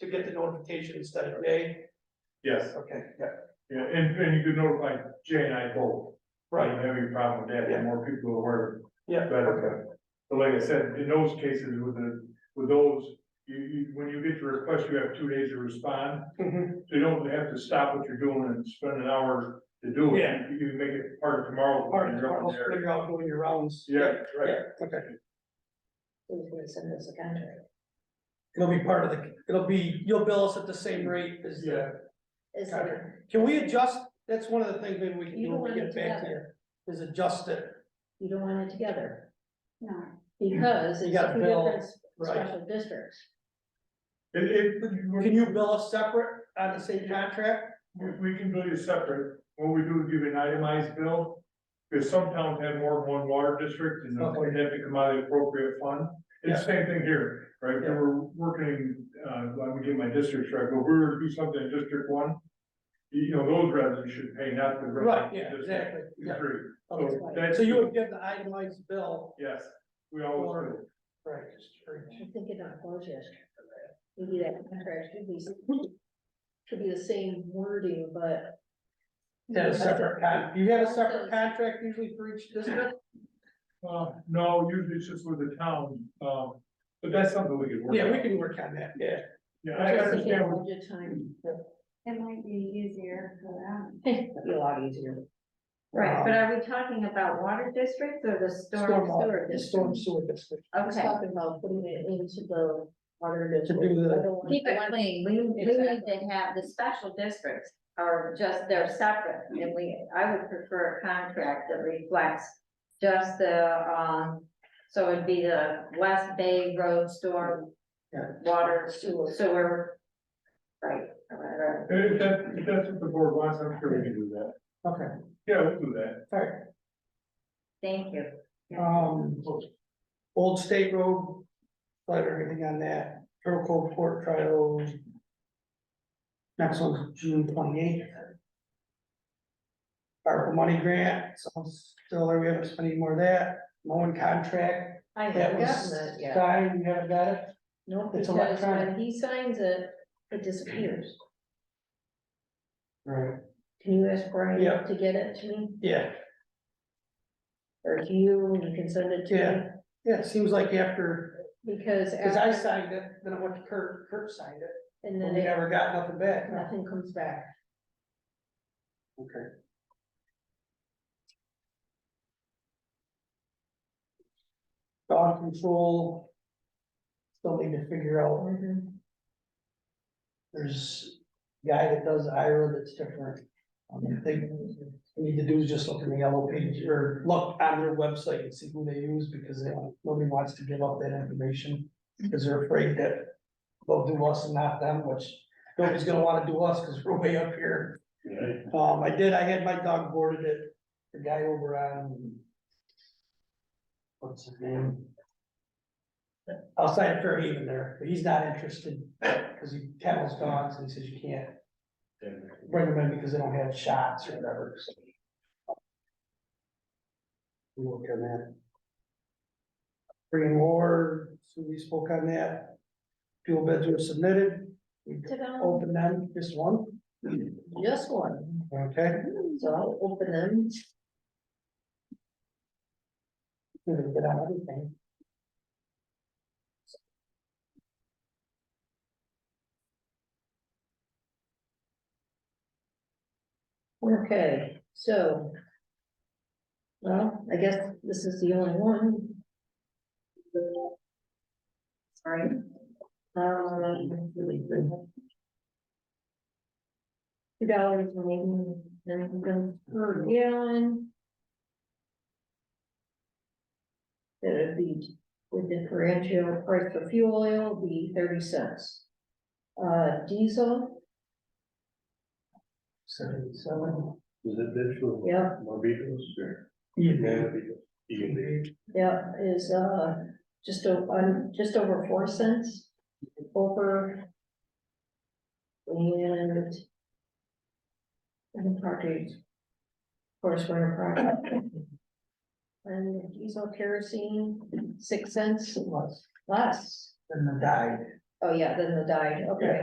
could get the notification instead of May, Yes, okay, yeah, yeah, and, and you could notify Jay and I both. I right, don't have any problem with that, the more people aware, yeah, the okay, better. uh, But like I said, in those cases with the, with those, you, you, when you get your request, you have two days to respond. mhm, So you don't have to stop what you're doing and spend an hour to do it. Yeah. You can make it part of tomorrow. all right, when you're tomorrow, on I'll there. figure out doing your rounds. Yeah, right. Yeah, okay, Who's gonna send us a contract? it'll be part of the, it'll be, you'll bill us at the same rate as the. Is Contract. there- Can we adjust, that's one of the things maybe we can You do don't when we want get it back to you, is adjust it, you don't want it together, No, because You it's gotta two bill, different s- right? special districts. It, it, Can you bill us separate on the same contract? we, we can bill you separate. What we do is give you an itemized bill. Because some towns have more than one water district and Okay. they have to come out of the appropriate fund. It's the same thing here, right? And we're working, uh, let me get my districts right, but if we were to do something in District One. You you know, those residents should pay, not the Right, residents. yeah, exactly, yeah. Agree. Okay. So that's. So you would give the itemized bill, Yes, we always do. right? I'm thinking of those yesterday. Maybe that contract should be, should be the same wording, but. Yeah, a separate con, you have a separate contract usually for each district? Uh, no, usually it's just with the town, um, but that's something we could work. Yeah, we out. can work on that, yeah. Yeah, I Just thinking understand, what- Budget time, it might be easier for them. that'd be a lot easier. Right, but Um, are we talking about water districts or the storm Stormwater, sewer the district? storm sewer district. I was Okay. talking about putting it into the water district. do the- I don't want- Keep it clean, we, we need Exactly. to have, the special districts are just, they're separate, and we, I would prefer a contract that reflects just the, um, so it'd be the West Bay Road Storm Yeah. Water Sewer. Sewer. Right, or whatever. if that, if that's what the board wants, I'm sure we can do that. Okay, Yeah, we'll do that. all right, thank you. um, Old State Road, let everything on that, Turtle Cove Court trials. Next one's June twenty-eighth. ARPA money grant, so still there, we haven't spent any more of that, mowing contract, I that haven't gotten was that yet. signed, you haven't got it? No, it's because when electronic. he signs it, it disappears. Right. Can you ask Yeah. Brian to get it to me? Yeah, Or to you, and you can send it Yeah. to yeah, it seems like after, me, because. cause I after- signed it, then I went to Kurt, Kurt signed it, And but then we it- never got nothing back. nothing comes back. Okay. Dog control. Still need to figure out, there's a guy that does Ira that's different. Um, I think we need to do is just look in the yellow page or look on their website and see who they use because they, nobody wants to give up that information. Cause they're afraid that they'll do us and not them, which nobody's gonna wanna do us, cause we're way up here. Um, I did, I had my dog boarded at the guy over on. What's his name? Outside of Fairhaven there, but he's not interested, cause he kennels dogs and he says you can't bring them in because they don't have shots or whatever, so. We will on that. Bringing war, so we spoke on that. Fuel bids were submitted, we Ta-da. opened them, just one, Just one, okay? so I'll open them. We didn't get on everything. Okay, so. Well, I guess this is the only one. Sorry. Um. Two dollars maybe, then per gallon. That'd be, the differential price for fuel oil would be thirty cents. Uh, diesel, Seventy-seven. Is it this for yeah, more vehicles or? Yeah. Yeah, is, uh, just o- um, just over four cents, over. And. And parties. Of course, we're a product. And diesel kerosene, six cents It was, less, then the died. oh yeah, then the diet, okay.